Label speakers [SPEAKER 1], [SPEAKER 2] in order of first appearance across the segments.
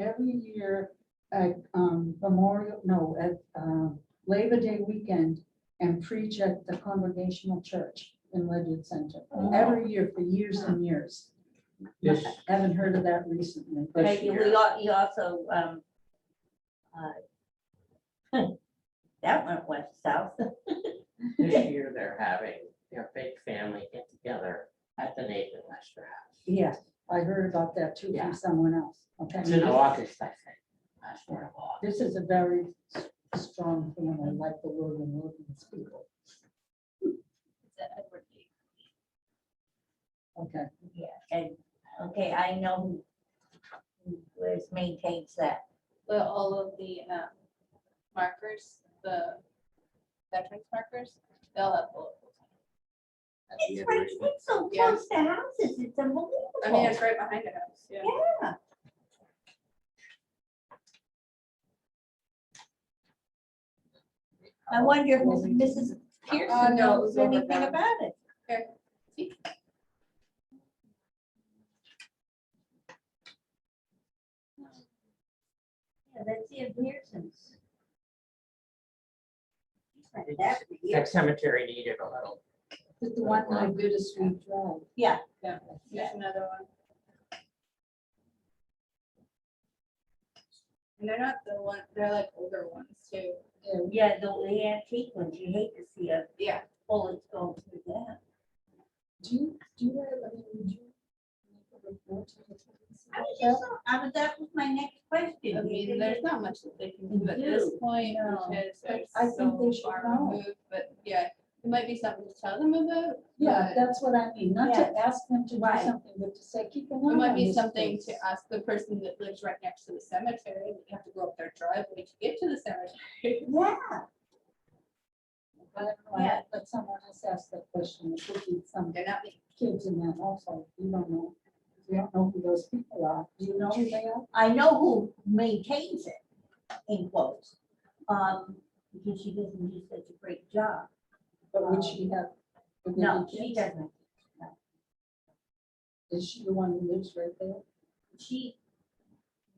[SPEAKER 1] every year at um, Memorial, no, at um, Labor Day weekend and preach at the Congregational Church in Ledyard Center. Every year for years and years.
[SPEAKER 2] Yes.
[SPEAKER 1] Haven't heard of that recently. but-
[SPEAKER 3] Right, you- we, al- you also, um, uh, that went west south.
[SPEAKER 4] This year, they're having their big family get together at the Nathan Lester House.
[SPEAKER 1] Yes, I heard about that too
[SPEAKER 4] Yeah.
[SPEAKER 1] from someone else. Okay.
[SPEAKER 4] It's in August, I think. Last word of August.
[SPEAKER 1] This is a very s- strong thing. I like the word and Wilkins people. Okay.
[SPEAKER 3] Yeah, and, okay, I know who who maintains that.
[SPEAKER 5] the, all of the um, markers, the veterans markers, they'll have bullet holes. in it.
[SPEAKER 3] It's right, it's so
[SPEAKER 5] Yeah.
[SPEAKER 3] close to houses, it's unbelievable.
[SPEAKER 5] I mean, it's right behind the house, yeah.
[SPEAKER 3] Yeah. I wonder if Mrs.
[SPEAKER 5] Uh,
[SPEAKER 3] Pearson
[SPEAKER 5] no, it was
[SPEAKER 3] knows
[SPEAKER 5] over
[SPEAKER 3] anything
[SPEAKER 5] there.
[SPEAKER 3] about it. Yeah, that's the Pearson's. That would be
[SPEAKER 4] That cemetery needed a little.
[SPEAKER 1] Is the one I did a sweet drive.
[SPEAKER 5] There's another one. And they're not the one, they're like older ones too.
[SPEAKER 1] Yeah,
[SPEAKER 3] Yeah, the the antique ones, you hate to see a
[SPEAKER 5] Yeah.
[SPEAKER 3] bullet go through that.
[SPEAKER 1] Do you, do you, have- I mean, would you? make a report to the police
[SPEAKER 3] I was
[SPEAKER 1] about
[SPEAKER 3] just,
[SPEAKER 1] that?
[SPEAKER 3] I was, that was my next question.
[SPEAKER 5] I
[SPEAKER 3] You
[SPEAKER 5] mean,
[SPEAKER 3] didn't-
[SPEAKER 5] there's not much that they can do at this
[SPEAKER 3] No.
[SPEAKER 5] point,
[SPEAKER 1] No.
[SPEAKER 5] because they're
[SPEAKER 1] I think
[SPEAKER 5] so
[SPEAKER 1] they should
[SPEAKER 5] far
[SPEAKER 1] know.
[SPEAKER 5] removed, but yeah, it might be something to tell them about.
[SPEAKER 1] Yeah,
[SPEAKER 5] but-
[SPEAKER 1] that's what I mean, not to ask them to do
[SPEAKER 3] Right.
[SPEAKER 1] something, but to say, keep an eye
[SPEAKER 5] It
[SPEAKER 1] on
[SPEAKER 5] might be
[SPEAKER 1] this
[SPEAKER 5] something to
[SPEAKER 1] place."
[SPEAKER 5] ask the person that lives right next to the cemetery, that you have to go up their driveway to get to the cemetery.
[SPEAKER 3] Yeah,
[SPEAKER 1] I don't know,
[SPEAKER 3] Yeah.
[SPEAKER 1] I- But someone else asked that question, it could be some
[SPEAKER 5] They're not, being-
[SPEAKER 1] kids in that also, you don't know. You don't know who those people are, do you know who they are?
[SPEAKER 3] I know who maintains it, in quotes, um, because she doesn't do such a great job.
[SPEAKER 1] But would she have? would they
[SPEAKER 3] No,
[SPEAKER 1] be
[SPEAKER 3] she
[SPEAKER 1] kids?
[SPEAKER 3] doesn't.
[SPEAKER 1] Is she the one who lives right there?
[SPEAKER 3] She,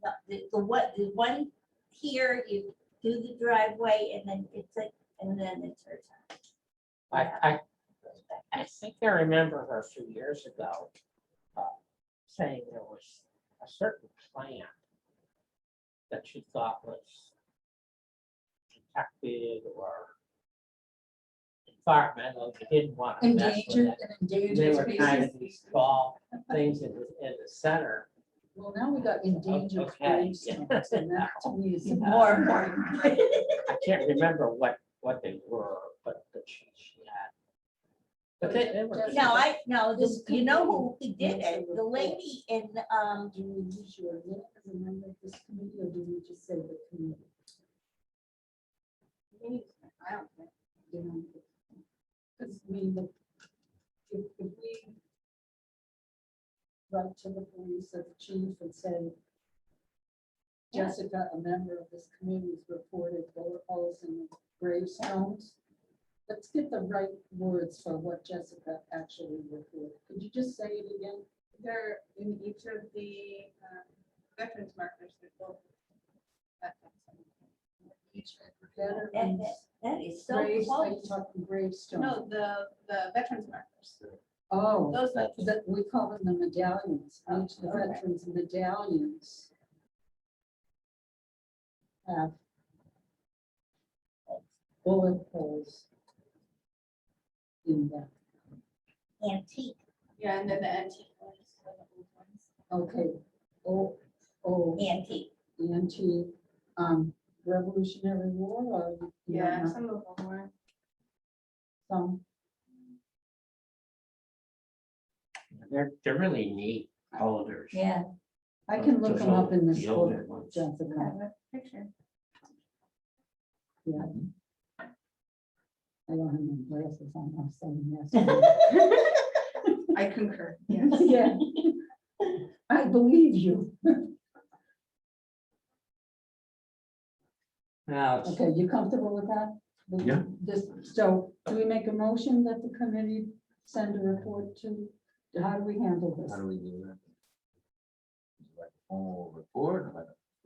[SPEAKER 3] no, the, the what, the one here, you do the driveway and then it's like, and then it's her turn.
[SPEAKER 4] I, I, I think I remember her a few years ago uh, saying there was a certain plant that she thought was protected or environmental, you didn't want to mess with
[SPEAKER 1] Endangered
[SPEAKER 4] it.
[SPEAKER 1] and
[SPEAKER 4] They were
[SPEAKER 1] endangered
[SPEAKER 4] kind of
[SPEAKER 1] species.
[SPEAKER 4] these small things in the, in the center.
[SPEAKER 1] Well, now we got endangered
[SPEAKER 4] okay, yeah.
[SPEAKER 1] gravestones, and that to me is
[SPEAKER 3] More
[SPEAKER 1] more
[SPEAKER 3] important.
[SPEAKER 4] I can't remember what, what they were, but the she she had. But they, they were.
[SPEAKER 3] No, I, no, this,
[SPEAKER 1] This
[SPEAKER 3] you know who
[SPEAKER 1] committee
[SPEAKER 3] did it, the lady in, um,
[SPEAKER 1] Do we use your name as a member of this committee, or do we just say the committee?
[SPEAKER 5] I don't think,
[SPEAKER 1] You know, Because I mean, the- if, if we write to the police or the chief and say,
[SPEAKER 3] Yeah.
[SPEAKER 1] Jessica, a member of this committee, has reported bullet holes in gravestones. Let's get the right words for what Jessica actually reported. Could you just say it again?
[SPEAKER 5] they're in each of the um, veterans markers. they're both at that cemetery.
[SPEAKER 3] And
[SPEAKER 1] Veterans,
[SPEAKER 3] that is so
[SPEAKER 1] graves, like
[SPEAKER 3] close.
[SPEAKER 1] talking gravestone.
[SPEAKER 5] No, the, the veterans markers,
[SPEAKER 1] Oh.
[SPEAKER 5] those ones.
[SPEAKER 1] That we call them the medallions, each of the
[SPEAKER 5] Okay.
[SPEAKER 1] veterans medallions. Have. Bullet holes. In them,
[SPEAKER 3] Antique,
[SPEAKER 5] yeah, and then the antique ones, the old ones.
[SPEAKER 1] okay, oh, oh,
[SPEAKER 3] antique.
[SPEAKER 1] anti, um, Revolutionary War or? you don't
[SPEAKER 5] Yeah, uh-huh.
[SPEAKER 1] know,
[SPEAKER 5] some of them were.
[SPEAKER 1] Some,
[SPEAKER 4] They're, they're really neat boulders.
[SPEAKER 3] Yeah.
[SPEAKER 1] I can look them up in this
[SPEAKER 4] Uh, The older
[SPEAKER 1] book,
[SPEAKER 4] ones.
[SPEAKER 1] Jessica,
[SPEAKER 3] Picture.
[SPEAKER 1] yeah. I don't have my glasses on, I'm saying yes.
[SPEAKER 3] Well,
[SPEAKER 5] I concur, yes.
[SPEAKER 1] Yeah. I believe you.
[SPEAKER 4] Now, it's-
[SPEAKER 1] Okay, you comfortable with that? The-
[SPEAKER 6] Yeah.
[SPEAKER 1] This, so do we make a motion that the committee send a report to, how do we handle this?
[SPEAKER 6] How do we do that? Like a formal report, like a